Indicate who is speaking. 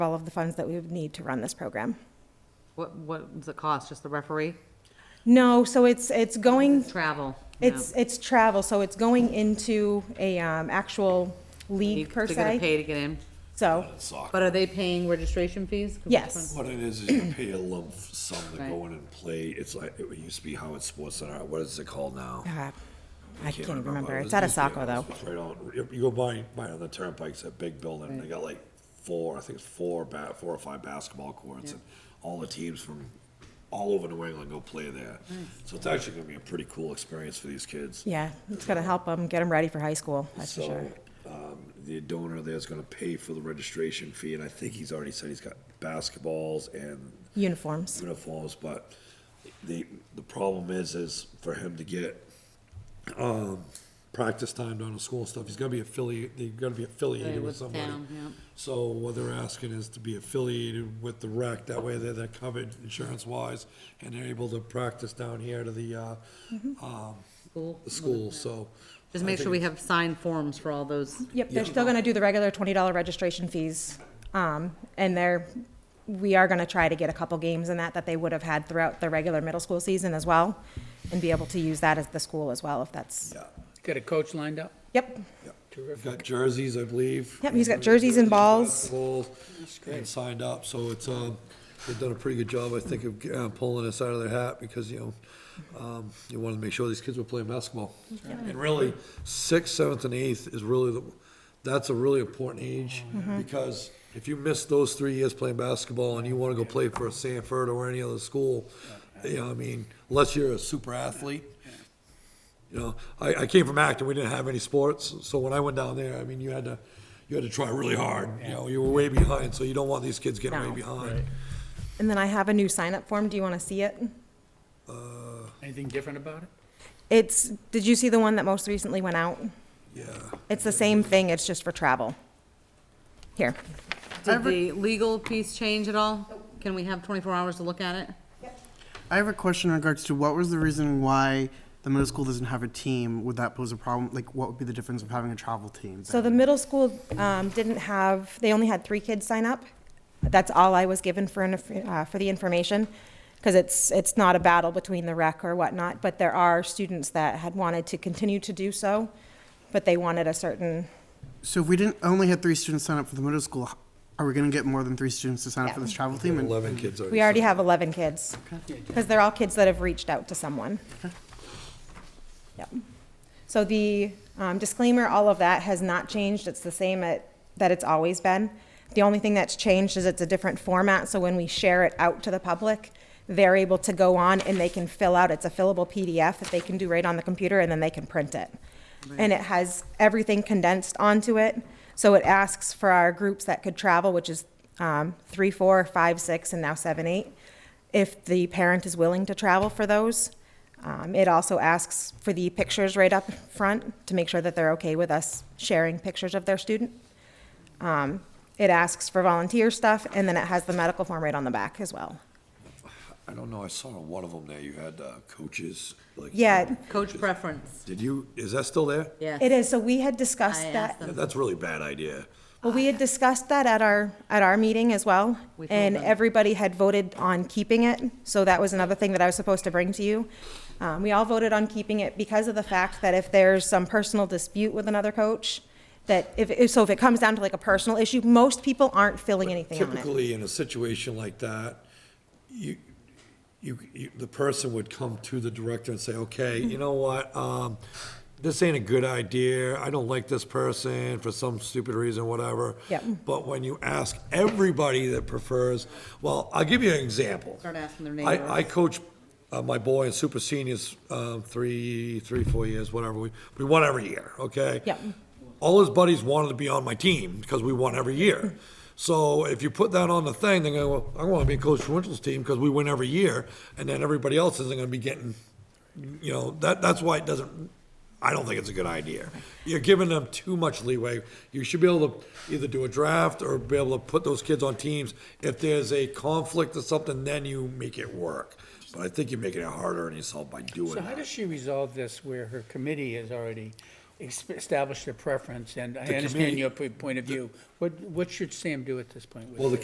Speaker 1: of all of the funds that we would need to run this program.
Speaker 2: What, what does it cost? Just the referee?
Speaker 1: No, so it's, it's going,
Speaker 2: Travel? no.
Speaker 1: it's, it's travel, so it's going into a, um, actual league per
Speaker 2: They're gonna
Speaker 1: se.
Speaker 2: pay to get in.
Speaker 1: So,
Speaker 3: Soccer.
Speaker 2: But are they paying registration fees? 'Cause which
Speaker 1: Yes.
Speaker 3: What it is, is you pay a lump sum to
Speaker 2: Right.
Speaker 3: go in and play. It's like, it used to be Howard Sports Center. What is it called now?
Speaker 1: uh, I
Speaker 3: Can't
Speaker 1: can't remember.
Speaker 3: It
Speaker 1: It's out of
Speaker 3: used to be
Speaker 1: Saco though.
Speaker 3: Howard Sports right on- you- You go by, by on the turnpike, it's a big building. They got like four, I think it's four, ba- four or five basketball courts and all the teams from all over New England go play there. So it's actually gonna be a pretty cool experience for these kids.
Speaker 1: Yeah, it's gonna help them, get them ready for high school, that's for sure.
Speaker 3: So, um, the donor there's gonna pay for the registration fee and I think he's already said he's got basketballs and
Speaker 1: Uniforms.
Speaker 3: uniforms, but the, the problem is, is for him to get, um, practice time down at school and stuff, he's gotta be affiliated, they gotta be affiliated with
Speaker 2: With
Speaker 3: somebody.
Speaker 2: town, yeah.
Speaker 3: So what they're asking is to be affiliated with the rec, that way they're, they're covered insurance-wise, and they're able to practice down here to the, uh, um,
Speaker 2: School?
Speaker 3: the school, so.
Speaker 2: Just
Speaker 3: I
Speaker 2: make sure
Speaker 3: think
Speaker 2: we have signed forms for all those.
Speaker 1: Yep, they're still gonna do the regular twenty dollar registration fees. Um, and they're, we are gonna try to get a couple games in that that they would have had throughout the regular middle school season as well. And be able to use that as the school as well if that's,
Speaker 3: Yeah,
Speaker 4: Got a coach lined up?
Speaker 1: yep,
Speaker 3: yeah. We've Got jerseys, I believe.
Speaker 1: Yep, he's got jerseys and balls.
Speaker 3: Balls, and signed up, so it's, um, they've done a pretty good job, I think, of uh, pulling us out of their hat, because, you know, um, you wanted to make sure these kids were playing basketball. And really, sixth, seventh, and eighth is really, the that's a really important age,
Speaker 1: Mm-hmm.
Speaker 3: because if you miss those three years playing basketball, and you wanna go play for Sanford or any other school, you know, I mean, unless you're a super athlete, you know, I, I came from Acton, we didn't have any sports, so when I went down there, I mean, you had to, you had to try really hard, you know, you were way behind, so you don't want these kids getting way
Speaker 1: No.
Speaker 3: behind.
Speaker 1: And then I have a new sign-up form. Do you want to see it?
Speaker 4: Anything different about it?
Speaker 1: It's, did you see the one that most recently went out?
Speaker 3: Yeah,
Speaker 1: It's the same thing, it's just for travel. Here.
Speaker 2: Did the legal piece change at all? Can we have twenty-four hours to look at it?
Speaker 5: I have a question in regards to what was the reason why the middle school doesn't have a team? Would that pose a problem? Like, what would be the difference of having a travel team?
Speaker 1: So the middle school um, didn't have, they only had three kids sign up. That's all I was given for, inf- uh, for the information, because it's, it's not a battle between the rec or whatnot, but there are students that had wanted to continue to do so, but they wanted a certain,
Speaker 5: So if we didn't only had three students sign up for the middle school, h- are we going to get more than three students to sign up for this travel team? And
Speaker 3: eleven kids already.
Speaker 1: we already have 11 kids, because they're all kids that have reached out to someone. Yep. So the um, disclaimer, all of that has not changed. It's the same at, that it's always been. The only thing that's changed is it's a different format, so when we share it out to the public, they're able to go on and they can fill out, it's a fillable PDF that they can do right on the computer, and then they can print it. And it has everything condensed onto it, so it asks for our groups that could travel, which is um, three, four, five, six, and now seven, eight, if the parent is willing to travel for those. Um, It also asks for the pictures right up front to make sure that they're okay with us sharing pictures of their student. Um, It asks for volunteer stuff, and then it has the medical form right on the back as well.
Speaker 3: I don't know, I saw on one of them there, you had, uh, coaches, like.
Speaker 1: Yeah,
Speaker 2: Coach preference,
Speaker 3: Did you, is that still there?
Speaker 2: yes.
Speaker 1: it is, so we had discussed
Speaker 2: I asked
Speaker 1: that,
Speaker 3: Yeah,
Speaker 2: them.
Speaker 3: That's a really bad idea.
Speaker 1: well, we had discussed that at our, at our meeting as well,
Speaker 2: We told
Speaker 1: and
Speaker 2: them.
Speaker 1: everybody had voted on keeping it, so that was another thing that I was supposed to bring to you. Um, We all voted on keeping it because of the fact that if there's some personal dispute with another coach, that if- if, so if it comes down to like a personal issue, most people aren't filling anything on it.
Speaker 3: Typically, in a situation like that, you, you, you, the person would come to the director and say, okay,
Speaker 1: Mm-hmm.
Speaker 3: you know what, um, this ain't a good idea, I don't like this person for some stupid reason, whatever.
Speaker 1: Yep.
Speaker 3: But when you ask everybody that prefers, well, I'll give you an example.
Speaker 2: Start asking their
Speaker 3: I,
Speaker 2: neighbors.
Speaker 3: I coach uh, my boy in super seniors, um, three, three, four years, whatever, we, we won every year, okay?
Speaker 1: Yep.
Speaker 3: all his buddies wanted to be on my team because we won every year. So if you put that on the thing, they're going, well, I want to be coach for Winchell's team because we win every year, and then everybody else isn't going to be getting, you know, that that's why it doesn't. I don't think it's a good idea. You're giving them too much leeway. You should be able to either do a draft or be able to put those kids on teams. If there's a conflict or something, then you make it work. But I think you're making it harder on yourself by doing
Speaker 4: So how
Speaker 3: that.
Speaker 4: does she resolve this where her committee has already ex- established a preference? And I
Speaker 3: The
Speaker 4: understand
Speaker 3: committee-
Speaker 4: your p- point of view. What, what should Sam do at this point? with
Speaker 3: Well, the
Speaker 4: this?